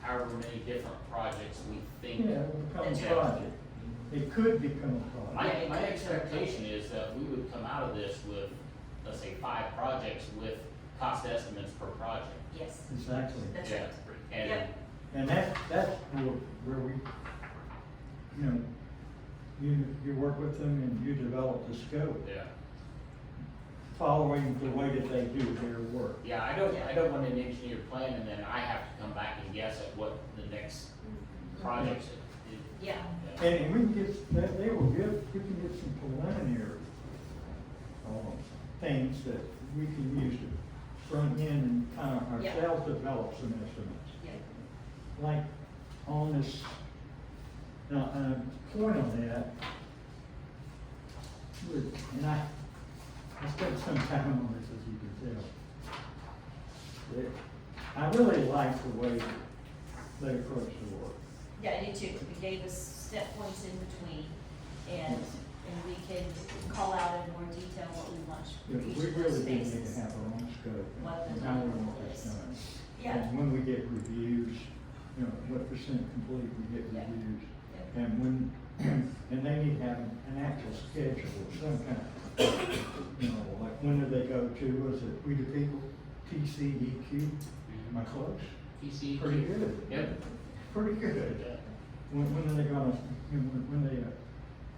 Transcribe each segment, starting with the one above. however many different projects we think. Yeah, it would become That's a right. project. It could become a project. My, my expectation is that we would come out of this with, let's say, five projects with cost estimates per project. Yes, Exactly. that's Yeah. right. And, Yep. And that, that's where, where we, you know, you, you work with them and you develop the scope, yeah, following the way that they do their work. yeah, I don't, I don't want an engineer plan and then I have to come back and guess at what the next projects. is. Yeah, Yeah. And and we can get, they, they will give, we can get some preliminary, um, things that we can use to front end and kind of Yeah. ourselves develop some estimates. yeah, like on this, now, um, point on that, would- and I, I spent some time on this, as you can tell. That I really like the way that they approach the work. yeah, I did too. We gave us step points in between and, and we can call out in more detail what we want You for know, each We of those really do need spaces. to have our own scope What the and how we number want this is. done. Yeah. And when we get reviews, you know, what percent complete we get Yeah. reviews. Yeah. And when, and they need to have an actual schedule of some kind. You know, like, when do they go to, was it We the People, TCEQ? Am I close? PCEQ. Pretty good. Yep. Pretty E Yeah. good. When, when are they gonna, you know, when, when they uh,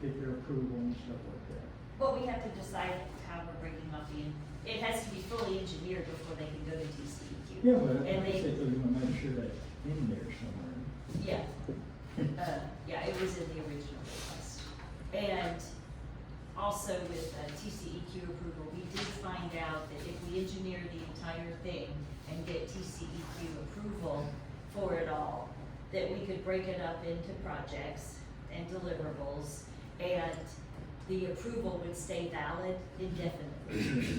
get their approval and stuff like that? But we have to decide how we're breaking up the, en- it has to be fully engineered before they can go to TCEQ. Yeah, but I And they- think we wanna make sure that's in there somewhere. Yeah, uh, yeah, it was in the original request. And also with uh, TCEQ approval, we did find out that if we engineer the entire thing and get TCEQ approval for it all, that we could break it up into projects and deliverables, and the approval would stay valid indefinitely.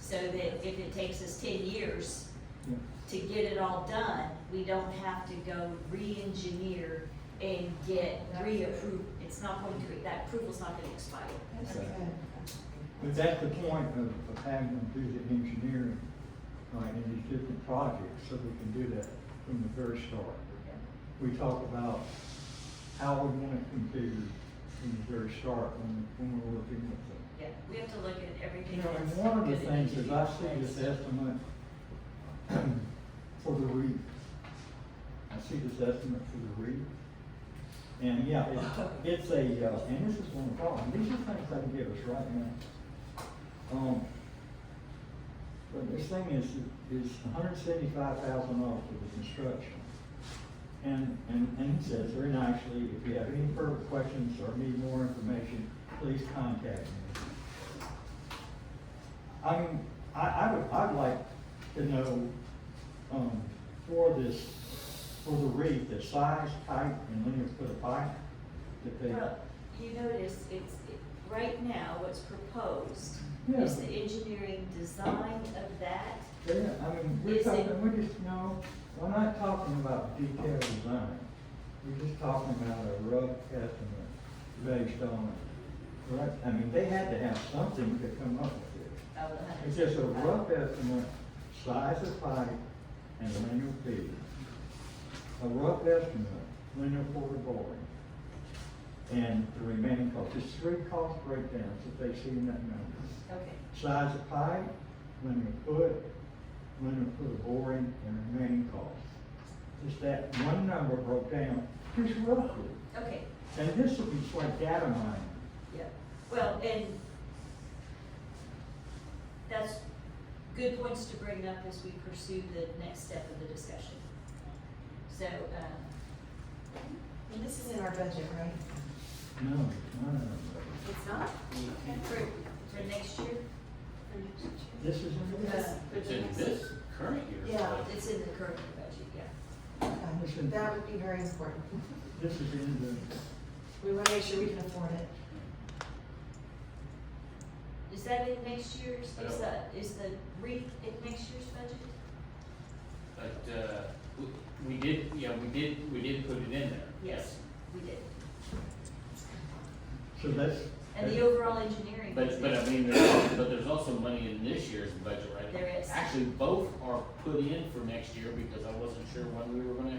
So that if it takes us ten years, Yeah. to get it all done, we don't have to go re-engineer and get reapproved. It's not going to, that approval's not gonna expire. That's So- good. But that's the point of, of having them do the engineering, like in these different projects, so we can do that from the very start. We talk about how we want it configured from the very start when, when we're working with them. Yeah, we have to look at everything. You know, and that's one of the gonna things need to is be I see replaced. this estimate for the reef. I see this estimate for the reef. And yeah, it's, it's a, uh, and this is one problem, these are things they can give us right now. Um, but this thing is, is hundred seventy-five thousand dollars for the construction. And, and, and it says very nicely, if you have any further questions or need more information, please contact me. I mean, I, I would, I'd like to know, um, for this, for the reef, the size, height, and linear foot of pipe that they, Well, you notice it's, it- right now, what's proposed Yeah. is the engineering design of that. yeah, I mean, we're Is it- talking, we're just, no, we're not talking about detailed design. We're just talking about a rough estimate based on, right, I mean, they had to have something to come up with it. of the hundred- It's just a rough estimate, size of pipe and linear feet. A rough estimate, linear foot of boring. And the remaining cost, there's three cost breakdowns that they see in that number. Okay, Size of pipe, linear foot, linear foot of boring, and remaining cost. Just that one number broke down, just roughly. okay, And this would be like data mining. yeah. Well, and that's good points to bring up as we pursue the next step of the discussion. So, um, And this is in our budget, right? No, no, no, no. It's not? for, for next year, This is, Yes. It's in this current year. Yeah. budget. it's in the current budget, yeah. Okay, That would be very important. this is in the We want to make sure we can afford it. Is that in next year's, I is don't- that, is the re, in next year's budget? But, uh, we- we did, yeah, we did, we did put it in there. We did. So that's. And the overall engineering. But, was but I next- mean, there's, but there's also money in this year's budget, right? There is. Actually, both are put in for next year because I wasn't sure when we were gonna